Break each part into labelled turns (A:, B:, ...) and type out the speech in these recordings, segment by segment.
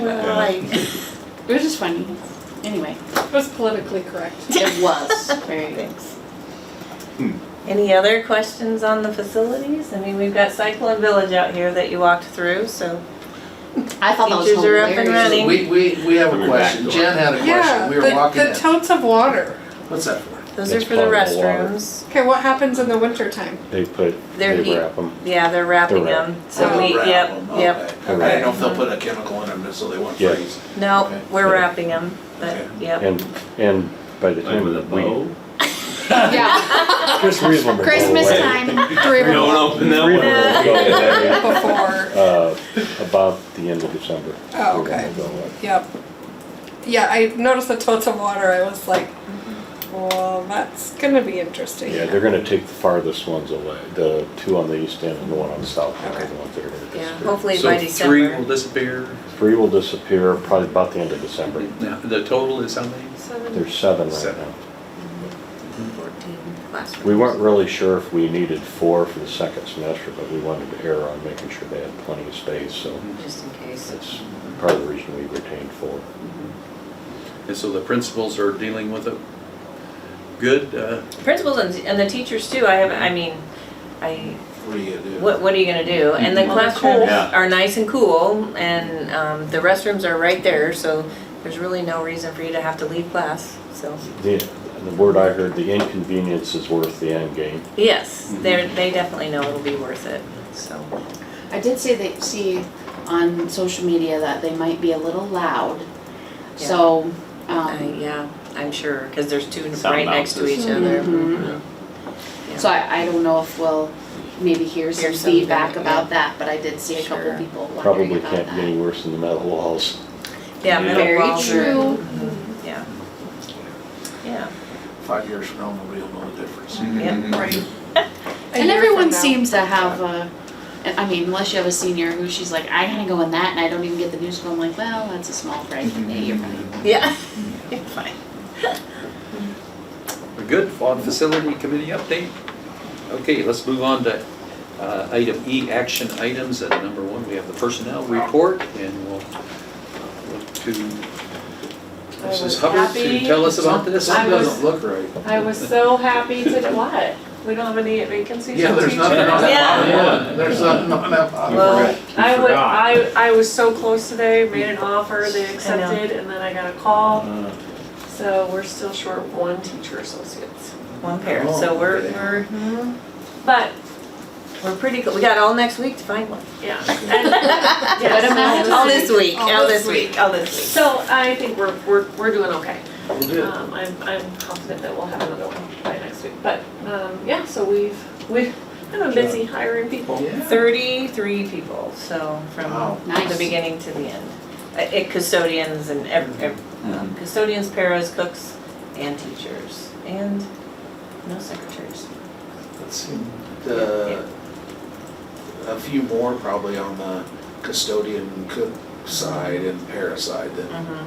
A: Well,
B: Right.
A: it was just funny. Anyway,
C: It was politically correct.
A: it was very.
D: Thanks.
B: Hmm.
D: Any other questions on the facilities? I mean, we've got Cyclone Village out here that you walked through, so.
A: I thought that was
D: Teachers are up and
A: hilarious.
D: running.
E: We, we, we have
B: From
E: a
B: your
E: question.
B: back door.
E: Jen had a
C: Yeah,
E: question. We were walking
C: the, the
E: in.
C: totes of water.
E: What's that for?
D: Those are
F: It's
D: for the
F: potable water.
D: restrooms.
C: Okay, what happens in the wintertime?
F: They put,
D: They're
F: they
D: heat.
F: wrap them.
D: Yeah, they're wrapping
F: They're
D: them. So
C: Oh,
D: we,
E: Wrap
D: yep,
E: 'em,
D: yep.
E: okay. I
F: Correct.
E: don't know if they'll put a chemical in them so they won't
F: Yeah.
E: freeze. Okay.
D: No, we're
F: Yeah.
D: wrapping them, but
E: Okay.
D: yep.
F: And, and by the time
B: with a
F: we,
B: bow?
A: Yeah,
F: Chris Reasonable.
A: Christmas time.
C: Three of them
B: open
D: Uh,
C: before.
F: Uh, about the end of December.
C: Oh,
F: we're gonna
C: okay.
F: go away.
C: Yep. Yeah, I noticed the totes of water. I was like, well, that's gonna be interesting.
F: Yeah, they're gonna take the farthest ones away, the two on the east end and the one on the south end are
C: Okay.
F: the ones that are gonna
D: Yeah,
F: disappear.
D: hopefully by
G: So three will
D: December.
G: disappear.
F: Three will disappear probably about the end of December.
G: Now, The total is how many?
F: There's seven right
G: Seven.
F: now.
D: Fourteen classrooms.
F: We weren't really sure if we needed four for the second semester, but we wanted to err on making sure they had plenty of space, so
D: Just in case.
F: that's part of the reason we retained four.
G: And so the principals are dealing with it good? uh,
D: Principals and, and the teachers too. I have, I mean, I
E: What do you do?
D: What, what are you gonna do? And the
A: Well, they're
D: classrooms
A: cool.
B: Yeah.
D: are nice and cool, and, um, the restrooms are right there, so there's really no reason for you to have to leave class, so.
F: The, the word I heard, the inconvenience is worth the end game.
D: Yes, they're, they definitely know it'll be worth it, so.
A: I did say they see on social media that they might be a little loud. So,
D: I,
A: um,
D: yeah, I'm sure, cause there's two
B: Sound
D: right next to
B: bounces.
D: each other.
A: mhm.
D: Yeah.
A: so I, I don't know if we'll maybe hear some
D: Hear something,
A: feedback
D: yeah.
A: about that, but I did see a couple
D: Sure.
A: people wondering
F: Probably
A: about that.
F: can't be any worse than the metal walls.
D: Yeah, middle
A: Very
D: walls are.
A: true.
D: Mhm, Yeah, yeah.
E: Five years from now, nobody will know the difference.
D: Yep.
C: Right. A
A: And
C: year
A: everyone
C: from now.
A: seems to have a, and I mean, unless you have a senior who she's like, I gotta go in that and I don't even get the news, I'm like, well, that's a small break. Hey, you're right.
D: Yeah. Fine.
G: We're good on facility committee update? Okay, let's move on to uh, item E, action items. At number one, we have the personnel report, and we'll uh, look to
C: I was
G: Mrs. Hubbard to
C: happy.
G: tell us about this.
C: I
E: Something
C: was-
E: doesn't look right.
C: I was so happy to, what? We don't have any vacancies
E: Yeah,
C: for
E: there's
C: teachers?
E: nothing on that
D: Yeah.
E: bottom one. There's nothing on that bottom
D: Well,
E: one.
C: I would,
B: forgot.
C: I, I was so close today, made an offer, they
D: I know.
C: accepted, and then I got a call. So we're still short one teacher associates.
D: One pair, so we're, we're,
C: But,
D: we're pretty, good. we got all next week to find one.
C: yeah. and- yes,
A: But imagine-
D: All this week,
C: All
D: all
C: this
D: this week, all this week.
C: So I think we're, we're, we're doing okay.
E: We'll do it.
C: Um, I'm, I'm confident that we'll have another one by next week, but, um, yeah, so we've, we've, kind of busy hiring people.
E: Yeah.
D: 33 people, so
E: Wow.
D: from
A: Nice.
D: the beginning to the end. Uh, It custodians and ev- ev- um, custodians, paras, cooks, and teachers, and no secretaries.
E: Let's see, the, a few more probably on the custodian cook side and para side than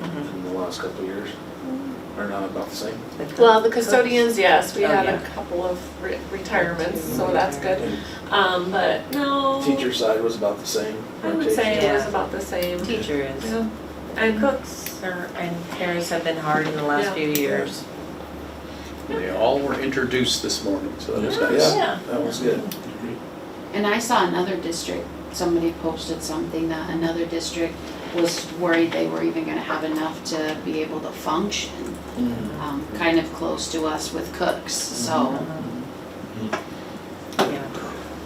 D: Mm-hmm.
E: in the last couple of years. Are not about the same.
D: The cook-
C: Well, the custodians, yes, we
D: Oh,
C: had a
D: yeah.
C: couple of re- retirements, so
D: Two
C: that's good. Um, but no.
E: Teacher side was about the same.
C: I would
E: rotation.
C: say it was
D: Yeah.
C: about the same.
D: Teachers.
C: Yeah. And
D: Cooks are- and paras have been hard in the last
C: Yeah.
D: few years.
G: They all were introduced this morning, so that was nice.
E: Yeah, that was good.
A: And I saw another district, somebody posted something that another district was worried they were even gonna have enough to be able to function, um, kind of close to us with cooks, so.
D: Yeah.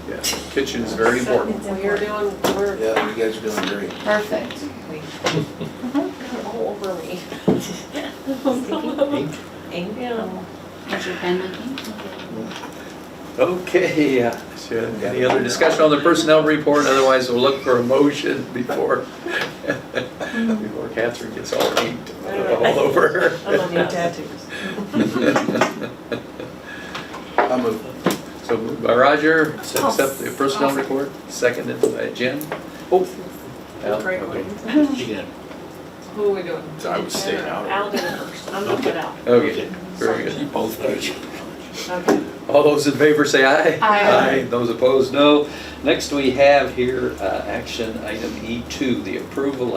G: Yeah, Kitchen is very important.
C: We're doing, we're
E: Yeah, you guys are doing great.
A: Perfect.
C: kind of all over me.
D: Sticky ink.
C: Yeah.
A: Has your pen looking?
G: Okay, uh, so any other discussion on the personnel report? Otherwise, we'll look for a motion before, before Catherine gets all inked all over. her.
C: I love
D: New
C: that.
D: tattoos.
E: I moved.
G: So moved by Roger, accept the personnel report, seconded by Jen. Oh. Al,
C: Great
G: okay.
C: one.
E: Again.
C: Who are we doing?
E: So I would stay out.
C: Al did it first. I'm gonna get out.
G: Okay, very good.
E: Both pages.
C: Okay.
G: All those in favor say aye.
A: Aye.
G: Those opposed, no. Next, we have here, uh, action item E2, E the approval